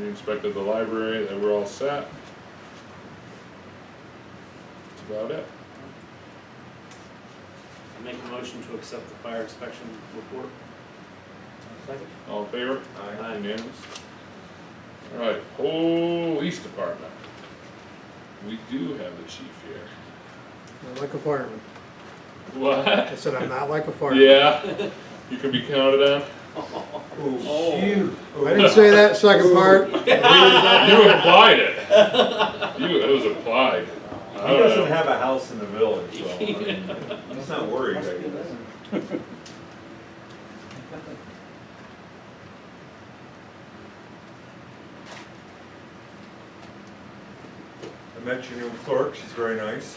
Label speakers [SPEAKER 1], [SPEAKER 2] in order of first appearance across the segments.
[SPEAKER 1] inspected the library, they were all set. That's about it.
[SPEAKER 2] I make a motion to accept the fire inspection report.
[SPEAKER 3] Second?
[SPEAKER 1] All in favor?
[SPEAKER 2] Aye.
[SPEAKER 1] Unanimous? All right, police department. We do have the chief here.
[SPEAKER 4] Not like a fireman.
[SPEAKER 1] What?
[SPEAKER 4] I said, I'm not like a fireman.
[SPEAKER 1] Yeah, you can be counted on.
[SPEAKER 3] Oh, shoot. Oh.
[SPEAKER 4] I didn't say that second part.
[SPEAKER 1] You implied it. You, it was implied. I
[SPEAKER 5] He
[SPEAKER 1] don't
[SPEAKER 5] doesn't
[SPEAKER 1] know.
[SPEAKER 5] have a house in the village, so I mean, he's not worried, I
[SPEAKER 3] Must be
[SPEAKER 5] guess.
[SPEAKER 3] there.
[SPEAKER 5] I met your new clerk, she's very nice.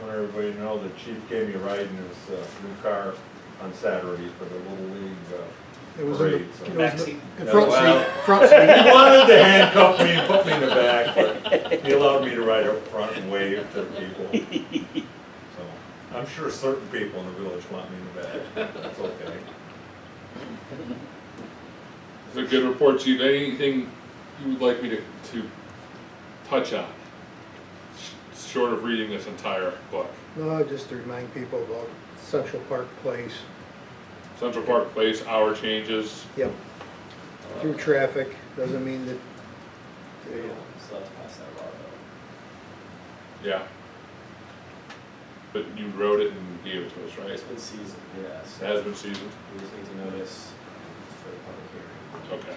[SPEAKER 5] Want everybody to know the chief gave me a ride in his uh, new car on Saturday for the Little League. uh,
[SPEAKER 4] It was in the,
[SPEAKER 5] Great, so-
[SPEAKER 4] it was in
[SPEAKER 2] Backseat.
[SPEAKER 4] the- the
[SPEAKER 1] Oh,
[SPEAKER 4] front seat, front seat.
[SPEAKER 5] He wanted to handcuff me and put me in the back, but he allowed me to ride up front and wave to people. So I'm sure certain people in the village want me in the back, that's okay.
[SPEAKER 1] It's a good report, chief. Anything you would like me to, to touch on? Sh- Short of reading this entire book.
[SPEAKER 4] No, just to remind people about Central Park Place.
[SPEAKER 1] Central Park Place, hour changes.
[SPEAKER 4] Yep. Through traffic, doesn't mean that,
[SPEAKER 3] There you go. So that's past that law though.
[SPEAKER 1] Yeah. But you wrote it and gave it to us, right?
[SPEAKER 3] It's been seasoned, yes.
[SPEAKER 1] It has been seasoned.
[SPEAKER 3] We just need to notice for the public hearing.
[SPEAKER 1] Okay.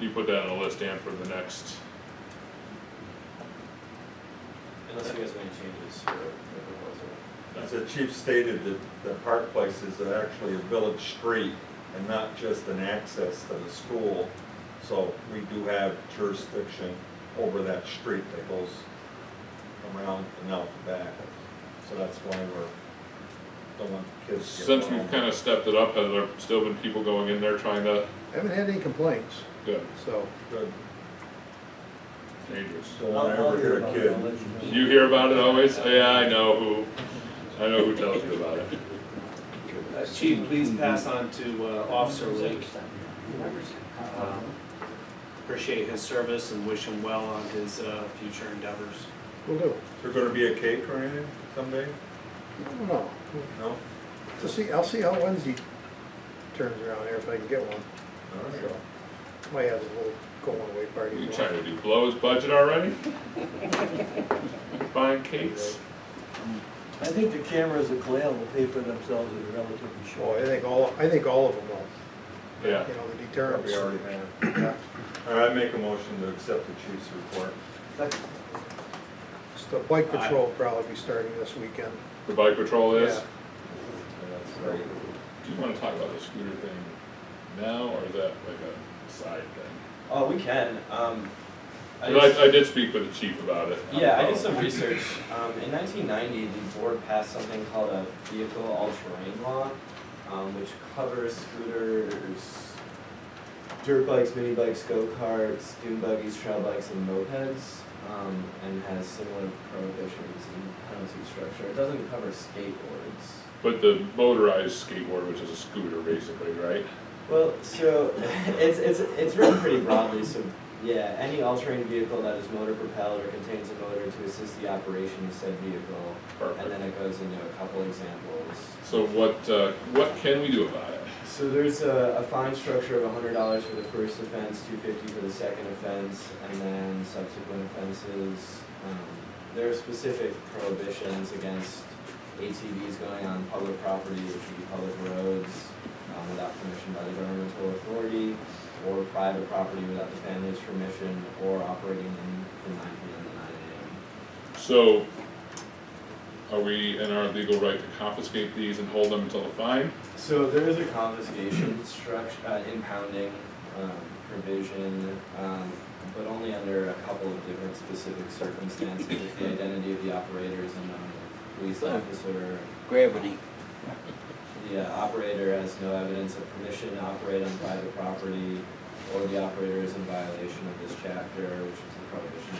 [SPEAKER 1] You put that on a list, Dan, for the next.
[SPEAKER 3] Unless you guys make changes for the proposal.
[SPEAKER 5] As the chief stated, that the Park Place is actually a village street and not just an access to the school. So we do have jurisdiction over that street that goes around and out the back. So that's why we're, don't want kids. to get
[SPEAKER 1] Since we've
[SPEAKER 5] wrong.
[SPEAKER 1] kind of stepped it up, have there still been people going in there trying to,
[SPEAKER 4] haven't had any complaints,
[SPEAKER 1] good,
[SPEAKER 4] so.
[SPEAKER 5] Good.
[SPEAKER 1] dangerous.
[SPEAKER 5] Don't want to ever hear a kid.
[SPEAKER 1] You hear about it always? Oh, Yeah, I know who, I know who tells you about it.
[SPEAKER 2] Uh, Chief, please pass on to uh, Officer Lake. Um, Appreciate his service and wish him well on his uh, future endeavors.
[SPEAKER 4] We'll do.
[SPEAKER 5] Is there gonna be a cake or anything someday?
[SPEAKER 4] I don't know.
[SPEAKER 5] No?
[SPEAKER 4] So see, I'll see how Wednesday turns around here, if I can get one.
[SPEAKER 5] All right.
[SPEAKER 4] Might have a little going away party.
[SPEAKER 1] You trying to do blow his budget already? Buying cakes?
[SPEAKER 6] I think the cameras at Clayel will pay for themselves in a relatively
[SPEAKER 4] Oh, I
[SPEAKER 6] short.
[SPEAKER 4] think all, I think all of them will,
[SPEAKER 1] Yeah,
[SPEAKER 4] you know, the
[SPEAKER 5] Probably
[SPEAKER 4] deterrence.
[SPEAKER 5] already have. All right, I make a motion to accept the chief's report.
[SPEAKER 6] Second.
[SPEAKER 4] The bike patrol will probably be starting this weekend.
[SPEAKER 1] the bike patrol is.
[SPEAKER 4] Yeah.
[SPEAKER 5] And that's great.
[SPEAKER 1] Do you wanna talk about the scooter thing now, or is that like a side thing?
[SPEAKER 3] Oh, we can, um. I
[SPEAKER 1] But
[SPEAKER 3] just-
[SPEAKER 1] I, I did speak with the chief about it.
[SPEAKER 3] Yeah, I did some research. Um, in nineteen ninety, the board passed something called a vehicle all-terrain law, um, which covers scooters, dirt bikes, mini bikes, go-karts, dune buggies, trail bikes, and mopeds, um, and has similar prohibitions and penalty structure. It doesn't cover skateboards.
[SPEAKER 1] But the motorized skateboard, which is a scooter basically, right?
[SPEAKER 3] Well, so it's it's it's written pretty broadly. So yeah, any all-terrain vehicle that is motor propelled or contains a motor to assist the operation of said vehicle, and then
[SPEAKER 1] Perfect.
[SPEAKER 3] it goes into a couple examples.
[SPEAKER 1] So what, uh, what can we do about it?
[SPEAKER 3] So there's a, a fine structure of hundred dollars for the first offense, two fifty for the second offense, and then subsequent offenses. Um, there are specific prohibitions against ATVs going on public property, which would be public roads, um, without permission by the governmental authority, or private property without the family's permission, or operating in, from nine P M to nine A M.
[SPEAKER 1] So, are we in our legal right to confiscate these and hold them until the fine?
[SPEAKER 3] So there is a confiscation structure, uh, impounding, um, provision, um, but only under a couple of different specific circumstances, if the identity of the operator is unknown, the police officer,
[SPEAKER 7] gravity.
[SPEAKER 3] the uh, operator has no evidence of permission to operate on private property, or the operator is in violation of this chapter, which is the prohibition